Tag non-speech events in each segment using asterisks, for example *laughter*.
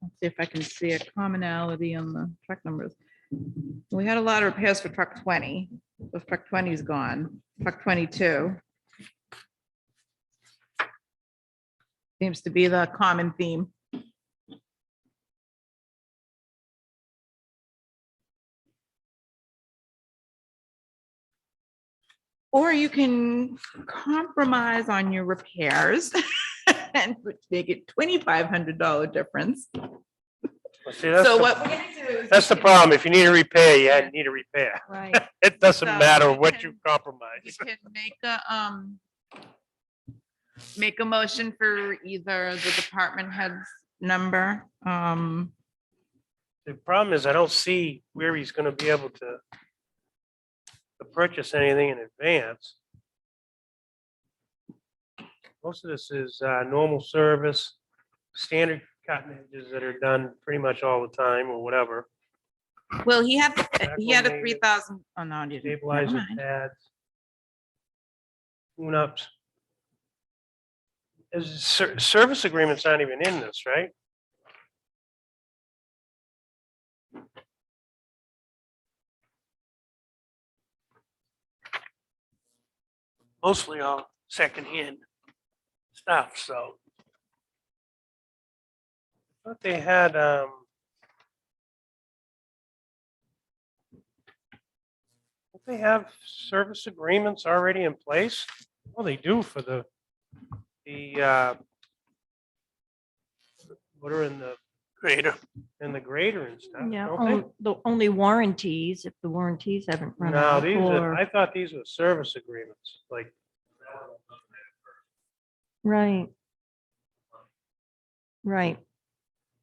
Let's see if I can see a commonality on the truck numbers. We had a lot of repairs for truck twenty, but truck twenty is gone, truck twenty-two. Seems to be the common theme. Or you can compromise on your repairs *laughs* and make it twenty-five hundred dollar difference. Well, See, that's, So the- what we're gonna do is. *laughs* that's the problem. If you need a repair, you had- need a repair. *laughs* Right. It doesn't So, matter we what can- you You compromise. can make a, um, make a motion for either the department head's number, um, The problem is I don't see where he's gonna be able to to purchase anything in advance. Most of this is, uh, normal service, standard cotton edges that are done pretty much all the time or whatever. well, he had, he had a Acclimated. three thousand, oh, no, he didn't. Never Stabilizer mind. pads. Tune ups. Is, ser- service agreement's not even in this, right? Mostly all secondhand stuff, so. But they had, um. Don't They have service agreements already in place? Well, they do for the, the, uh, what are in the. Grader. In the grader and stuff, Yeah, oh, don't on- the only warranties, if the warranties haven't they? run No, out these, are- or, I thought these were service agreements, like. right. Right.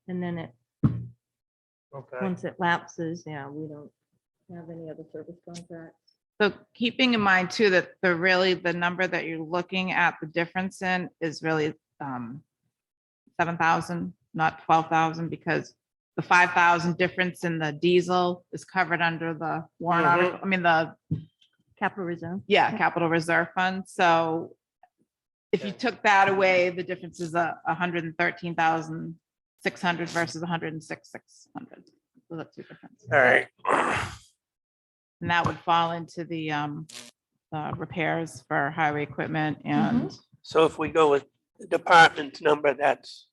And then it, Okay, once it lapses, yeah, we don't have any other service contracts. So keeping in mind too, that the really, the number that you're looking at the difference in is really, um, seven thousand, not twelve thousand, because the five thousand difference in the diesel is covered under the warrant Mhm. article, I mean, the Capital reserve. Yeah, capital reserve fund, so if you Okay. took that away, the difference is a hundred and thirteen thousand six hundred versus a hundred and six, six hundred. So that's two difference, all right. and that would fall into the um, uh, repairs for highway equipment Mm-hmm. and So if we go with the department's number, that's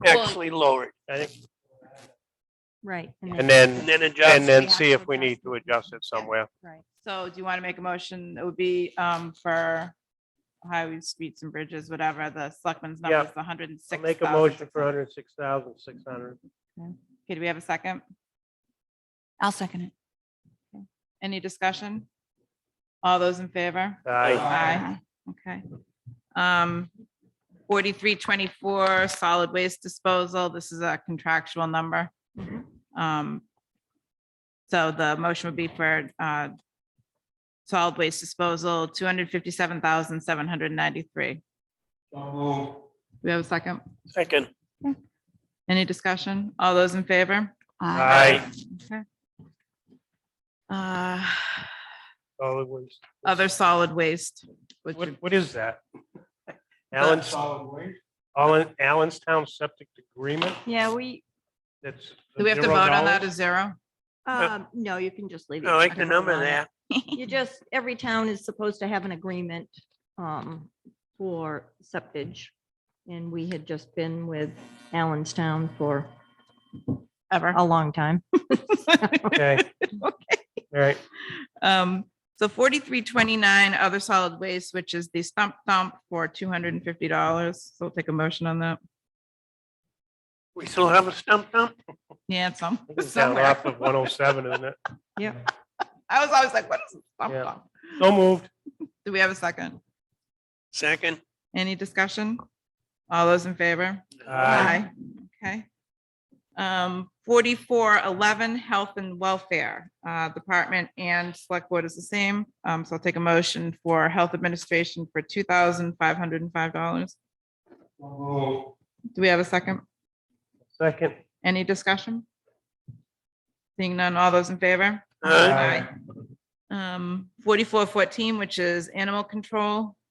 Well- actually lowered I think- Right. And and then, then and adjust. then see if we need to adjust it somewhere. Right. So do you want to make a motion? It would be um, for highway, streets and bridges, whatever, the selectmen's number Yeah. is hundred and I'll six. Make a motion for hundred and six thousand, six hundred. Okay, do we have a second? I'll second it. Any discussion? All those in favor? Aye. Aye. Okay. Um, forty-three twenty-four, solid waste disposal. This is a contractual number. Mm-hmm. Um, so the motion would be for, uh, solid waste disposal, two hundred fifty-seven thousand, seven hundred ninety-three. We have a second? Second, Any discussion? All those in favor? Aye. Okay. Uh, Solid waste. other solid waste, which What, would what *laughs* is that? Allen's, Allen, Allenstown Septic Agreement, Yeah, we, that's. Do we have to $0? vote on that as zero? um, no, you can just leave. it. I like You the can number run it. there. You just, every town is supposed to have an agreement um, for septage. And we had just been with Allenstown for Ever? a long time. Okay. *laughs* *laughs* All right, Um, so forty-three twenty-nine, other solid waste, which is the stump dump for two hundred and fifty dollars. So we'll take a motion on that. We still have a stump dump? Yeah, it's some, *laughs* it's down somewhere. off of one oh seven, isn't it? I was always like, what is a stump Yeah. dump? So moved. Do we have a second? Second, Any discussion? All those in favor? Aye. Okay. Um, forty-four eleven, health and welfare, uh, department and select board is the same. Um, so I'll take a motion for health administration for two thousand five hundred and five dollars. Do we have a second? Second. Any discussion? Seeing none, all those in favor? Aye. Um, forty-four fourteen, which is animal control,